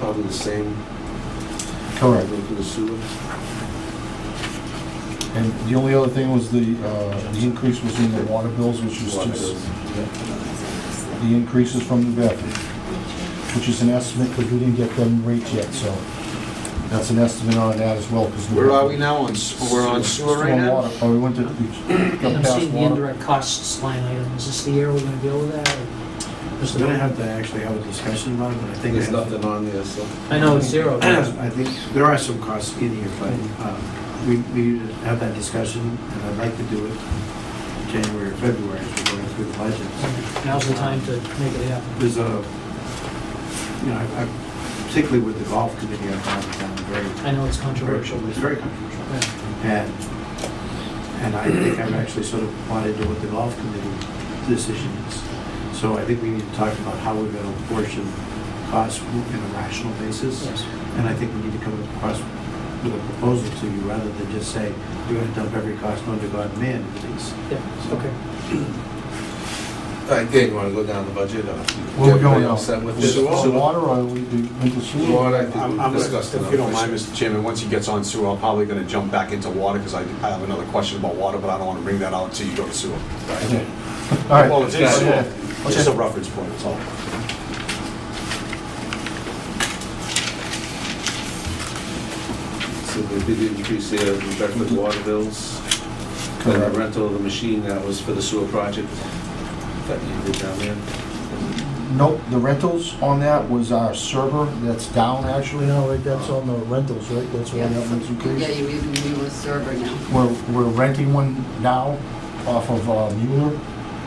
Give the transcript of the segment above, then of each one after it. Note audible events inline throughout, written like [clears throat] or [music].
probably the same. Correct. Go through the sewer. And the only other thing was the, uh, the increase was in the water bills, which is Water just, bills. the increases from the bathroom, which is an estimate, because we didn't get them rates yet, so that's an estimate on that as well, because. Where are we now on, s- we're on sewer right now? Oh, we went to, we Yeah, got I'm past seeing the water. indirect costs line item. Is this the year we're gonna deal with that? or- We're gonna have to actually have a discussion about it, but I think. There's nothing on there, so. I know it's zero. but- [clears throat] I think, there are some costs in here, but uh, we, we need to have that discussion, and I'd like to do it January or February as we're going through the budget. Now's the time to make it happen. There's a, you know, I- I- particularly with the golf committee, I found it um, very. I know it's controversial. It's very controversial. Yeah. And, and I think I've actually sort of wanted to what the golf committee decision is. So I think we need to talk about how we're gonna apportion costs in a rational basis. Yes. And I think we need to come across with a proposal to you rather than just say, you're gonna dump every cost known to God and man into these. Yeah, okay. All right, Dan, you wanna go down the budget? or- Where we Everybody going now? upset with this? Is it water, or we do, into sewer? Water, I think I'm- we I'm gonna- discussed enough. If you don't mind, Mr. Chairman, once he gets on sewer, I'm probably going to jump back into water because I I have another question about water, but I don't want to bring that out until you go to sewer. Okay. All right. Well, it's in Okay. sewer. It's just a reference point, that's all. So the big increase there in Bedford water bills, and the Correct. rental of the machine that was for the sewer project that you did down there. Nope, the rentals on that was our server, that's down actually now, right, that's on the rentals, right, that's why that one's Yeah, increased. you even do a server now. [laughs] We're, we're renting one now off of uh, Mueller,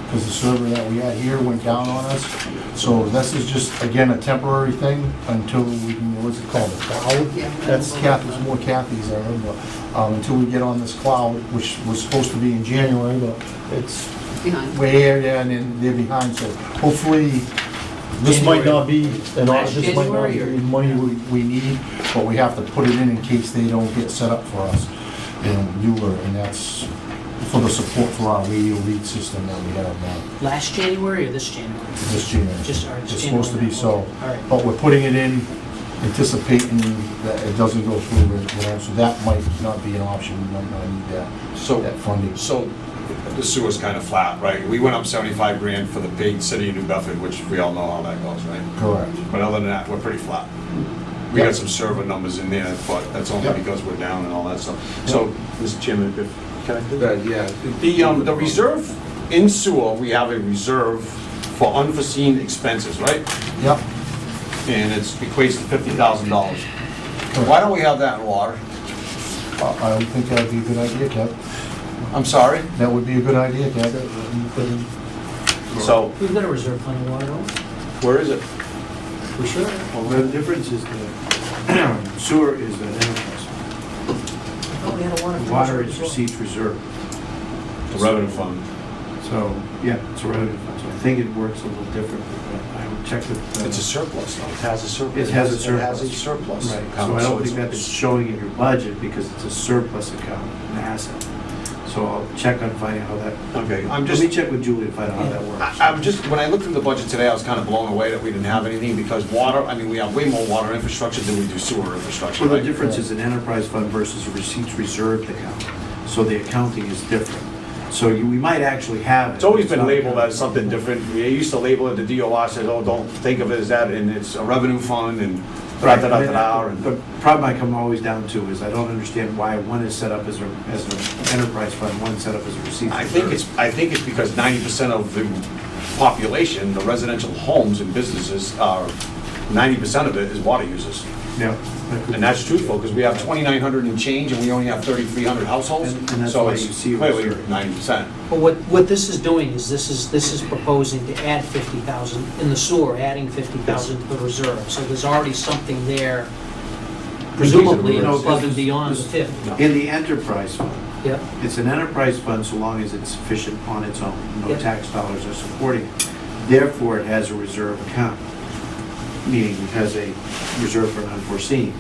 because the server that we had here went down on us. So this is just, again, a temporary thing until we can, what's it called, the cloud? Yeah. That's Kathy's, more Kathy's, I remember. Um, Until we get on this cloud, which was supposed to be in January, but it's Behind. way here, there, and then they're behind, so hopefully, this might not be, and all- this might not be the money we, we need, but we have to put it in in case they don't get set up for us in Mueller, and that's for the support for our radio lead system that we have now, Last January or this January? this January. Just, all right, It's just supposed to be January. so, All right. but we're putting it in anticipating that it doesn't go through, you know, so that might not be an option, we might not need that, So, that funding. so the sewer's kind of flat, right? We went up 75 grand for the big city of New Bedford, which we all know how that goes, right? Correct. But other than that, we're pretty flat. We got some server numbers in there, but that's only Yeah. because we're down and all that stuff. So, Mr. Chairman, if, can I do that? That, yeah. The, um, the reserve in sewer, we have a reserve for unforeseen expenses, right? Yep, And it's equates to fifty thousand dollars. Why don't we have that in water? I I would think that'd be a good idea, Kev. I'm sorry? That would be a good idea, Deb. uh, So, We've got a reserve fund in water, don't where is it? we? We sure? Well, the difference is the [clears throat] sewer is an enterprise. Oh, we had a water. Water is receipts reserve. The revenue fund. So, yeah, it's a revenue fund, so I think it works a little differently, but I will check with. uh, It's a surplus, though. It has a surplus. It has a surplus. It has a surplus. Right, so account, I don't it's- think that is showing in your budget because it's a surplus account, an asset. So I'll check on finding how that, Okay, I'm let just, me check with Julie to find out how that works. I- I'm just, when I looked through the budget today, I was kind of blown away that we didn't have anything because water, I mean, we have way more water infrastructure than we do sewer infrastructure, Well, the right? difference is an enterprise fund versus a receipts reserved account, so the accounting is different. So you, we might actually have it. It's always been not- labeled as something different. They used to label it, the DOR says, oh, don't think of it as that, and it's a revenue fund and Right, I mean, da-da-da-da-da. and- The problem I come always down to is I don't understand why one is set up as a, as an enterprise fund, one's set up as a receipts. I think reserve. it's, I think it's because ninety percent of the population, the residential homes and businesses are, ninety percent of it is water users. Yeah. And that's truthful, because we have twenty-nine hundred and change, and we only have thirty-three hundred households. And- and that's so why it's you see a Clearly, reserve. ninety percent. But what, what this is doing is this is, this is proposing to add 50,000 in the sewer, adding 50,000 to the reserve. So there's already something there presumably No, above and this- beyond the this- 50. In the enterprise fund, Yep. it's an enterprise fund so long as it's sufficient on its own, no Yeah. tax dollars are supporting it. Therefore, it has a reserve account, meaning it has a reserve for an unforeseen.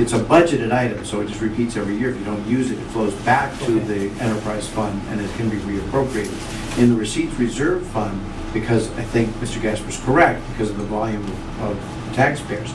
It's a budgeted item, so it just repeats every year. If you don't use it, it flows back to the enterprise fund and it can be reappropriated. In the receipts reserve fund, because I think Mr. Gasper's correct, because of the volume of- of taxpayers,